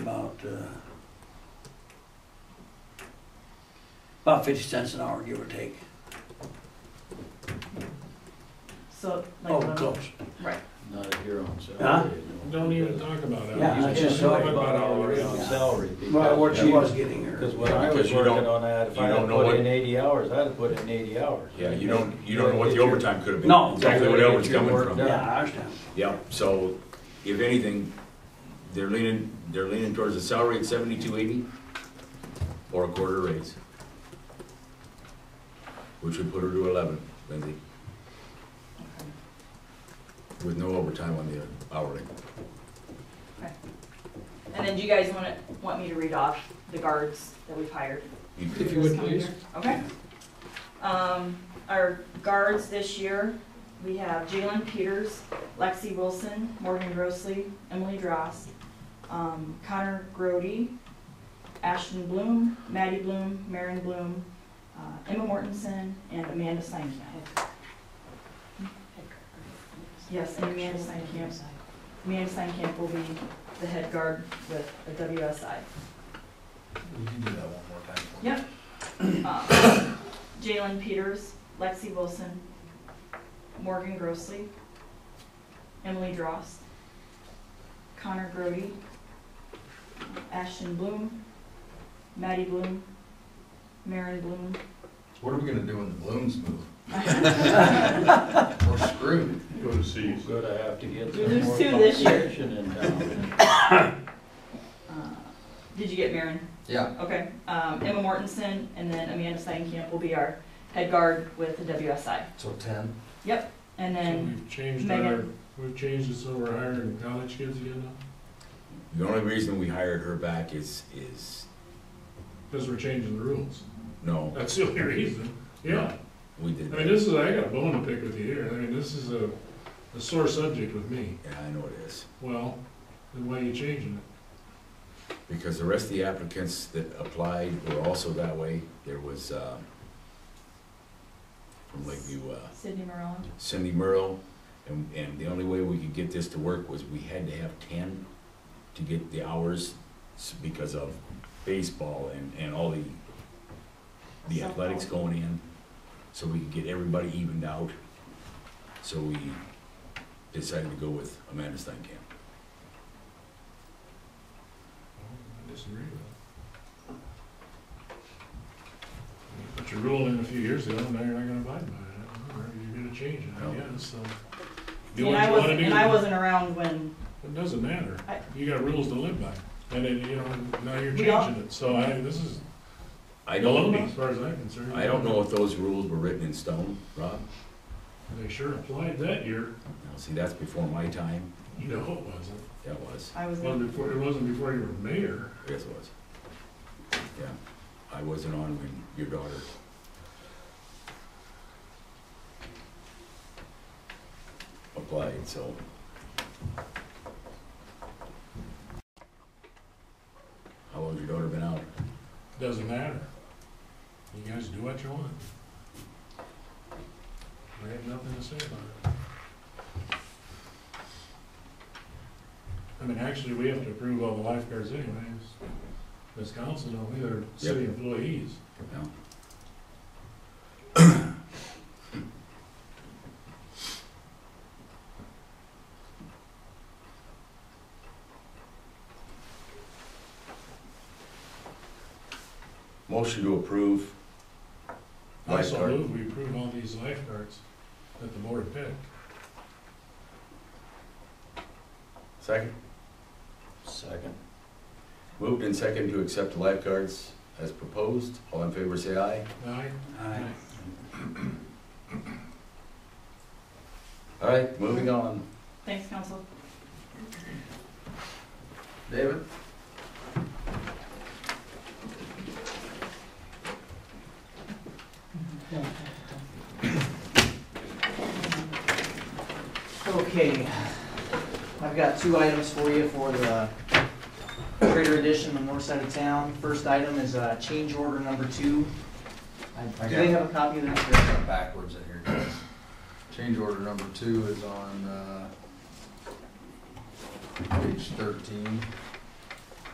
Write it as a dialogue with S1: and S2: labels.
S1: about, uh, about fifty cents an hour, give or take.
S2: So, like,
S1: Oh,
S2: when-
S1: close.
S3: Not if you're on
S1: Huh?
S3: salary. no.
S4: Don't even talk about that.
S1: Yeah,
S4: You
S1: I
S4: just
S1: just
S4: talk
S1: saw it.
S4: about hourly.
S3: On
S1: Yeah.
S3: salary. because-
S1: Well, what she
S3: Yeah.
S1: was getting her.
S3: Because when I
S5: Because
S3: was
S5: you
S3: working
S5: don't-
S3: on that, if
S5: you
S3: I
S5: don't
S3: had
S5: know
S3: put
S5: what-
S3: in eighty hours, I'd have put in eighty hours.
S5: Yeah, you don't, you don't know what the
S3: Get your-
S5: overtime could have been.
S1: No.
S5: Exactly what
S3: Get
S5: overtime's
S3: your
S5: coming
S3: work
S5: from.
S3: done.
S1: Yeah, I understand.
S5: Yeah, so if anything, they're leaning, they're leaning towards a salary at seventy-two eighty or a quarter raise. Which would put her to eleven, Lindsay. With no overtime on the hourly.
S2: and then do you guys want to, want me to read off the guards that we've hired?
S5: You
S2: for
S4: If
S5: could-
S4: you
S2: this
S4: would,
S2: coming
S4: please.
S2: year? Okay. Um, our guards this year, we have Jalen Peters, Lexi Wilson, Morgan Grossley, Emily Dross, um, Connor Grody, Ashton Bloom, Maddie Bloom, Marin Bloom, uh, Emma Mortensen, and Amanda Steinkamp. Yes, and Amanda Steinkamp. Amanda Steinkamp will be the head guard with the WSI.
S3: You can do that one more time.
S2: Um, Jalen Peters, Lexi Wilson, Morgan Grossley, Emily Dross, Connor Grody, Ashton Bloom, Maddie Bloom, Marin Bloom.
S6: What are we gonna do when the balloons move? We're screwed.
S4: Go to see.
S3: We're gonna have to
S2: We
S3: get some
S2: lose
S3: more
S2: two this year.
S3: competition in town.
S2: Uh, Did you get Marin?
S6: Yeah.
S2: Okay. Um, Emma Mortensen and then Amanda Steinkamp will be our head guard with the WSI.
S6: So ten?
S2: And
S4: So
S2: then,
S4: we've changed our,
S2: Megan.
S4: we've changed it so we're hiring college kids again now,
S5: The only reason we hired her back is, is,
S4: because we're changing the rules.
S5: no,
S4: That's the only reason, yeah.
S5: we
S4: I
S5: did
S4: mean,
S5: that.
S4: this is, I got a bone to pick with you here, I mean, this is a, a sore subject with me.
S5: Yeah, I know it is.
S4: Well, then why are you changing it?
S5: Because the rest of the applicants that applied were also that way. There was, um, from Lakeview, uh,
S2: Sydney Morella.
S5: Cindy Merle, and, and the only way we could get this to work was we had to have ten to get the hours s- because of baseball and, and all the, the athletics going in, so we could get everybody evened out. So we decided to go with Amanda Steinkamp.
S4: I disagree with that. You Put your rule in a few years ago, and now you're not gonna abide by it, or you're gonna change it, I
S5: No.
S4: guess, so. Do
S2: And
S4: what
S2: I
S4: you wanna
S2: wasn't,
S4: do.
S2: and I wasn't around when
S4: It doesn't matter.
S2: I-
S4: You got rules to live by. And then, you know, now you're
S2: We all-
S4: changing it, so I, this is
S5: I don't,
S4: baloney as far as I'm concerned.
S5: I don't know if those rules were written in stone, Rob.
S4: They sure applied that year.
S5: Now, see, that's before my time,
S4: You know it wasn't.
S5: that was,
S2: I was
S4: It wasn't before, it wasn't before you were mayor.
S5: yes, it was. Yeah, I wasn't on when your daughter applied, so. How long's your daughter been out?
S4: Doesn't matter. You guys do what you want. I have nothing to say about it. I mean, actually, we have to approve all the lifeguards anyways. This council, don't we, they're city employees.
S5: No? Motion to approve.
S4: Also
S5: Lifeguard.
S4: move, we approve all these lifeguards that the board picked.
S5: Second.
S3: Second.
S5: Moved and second to accept lifeguards as proposed. All in favor, say aye.
S4: Aye,
S1: Aye.
S5: All right, moving on.
S2: Thanks, council.
S6: David?
S7: Okay, I've got two items for you for the Trader Edition on the north side of town. First item is uh, change order number two. I- Do they have a copy of that?
S6: It's got backwards in here, guys. Change order number two is on, uh, page thirteen.